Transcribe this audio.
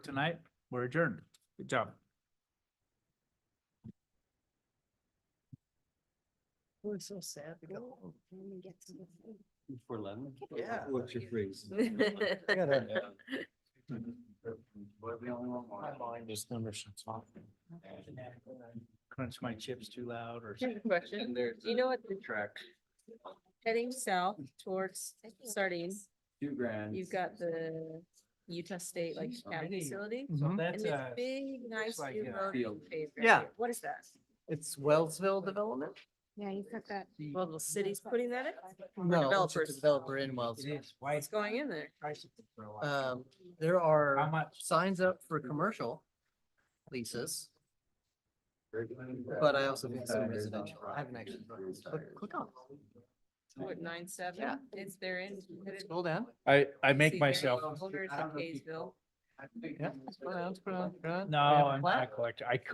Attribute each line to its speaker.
Speaker 1: tonight. We're adjourned. Good job.
Speaker 2: We're so sad to go.
Speaker 3: For Lennon?
Speaker 2: Yeah.
Speaker 3: What's your phrase? My mind is number six.
Speaker 1: Crunch my chips too loud or something.
Speaker 2: Question,
Speaker 3: there's.
Speaker 2: You know what the-
Speaker 3: Track,
Speaker 2: heading south towards starting,
Speaker 3: two grand.
Speaker 2: you've got the Utah State like
Speaker 3: Jeez,
Speaker 2: cab
Speaker 1: already.
Speaker 2: facility.
Speaker 1: So
Speaker 2: And
Speaker 1: that's uh,
Speaker 2: this
Speaker 1: a,
Speaker 2: big, nice
Speaker 1: like
Speaker 2: new
Speaker 1: a
Speaker 2: road.
Speaker 3: field.
Speaker 2: you paved right
Speaker 4: Yeah.
Speaker 2: here. What is that?
Speaker 4: It's Wellsville Development?
Speaker 5: Yeah, you put that.
Speaker 2: Well, the city's putting that in?
Speaker 4: No, it's just
Speaker 2: developers.
Speaker 4: a developer in
Speaker 1: it
Speaker 4: Wellsville.
Speaker 1: is. Why
Speaker 2: It's going in there.
Speaker 4: Um, there
Speaker 1: How
Speaker 4: are
Speaker 1: much?
Speaker 4: signs up for commercial leases, but I also think some residential. I haven't actually. looked at this, but Click on.
Speaker 2: What, nine, seven?
Speaker 4: Yeah.
Speaker 2: It's there in.
Speaker 4: it. Scroll down.
Speaker 6: I, I
Speaker 2: See,
Speaker 6: make
Speaker 2: there
Speaker 6: myself,
Speaker 2: you go. Holders
Speaker 3: I
Speaker 2: in
Speaker 3: don't know if you-
Speaker 2: Kaysville.
Speaker 4: Yeah, scroll down, scroll down, scroll down.
Speaker 1: No,
Speaker 4: We have a
Speaker 1: I'm
Speaker 4: plat.
Speaker 1: not collecting. I could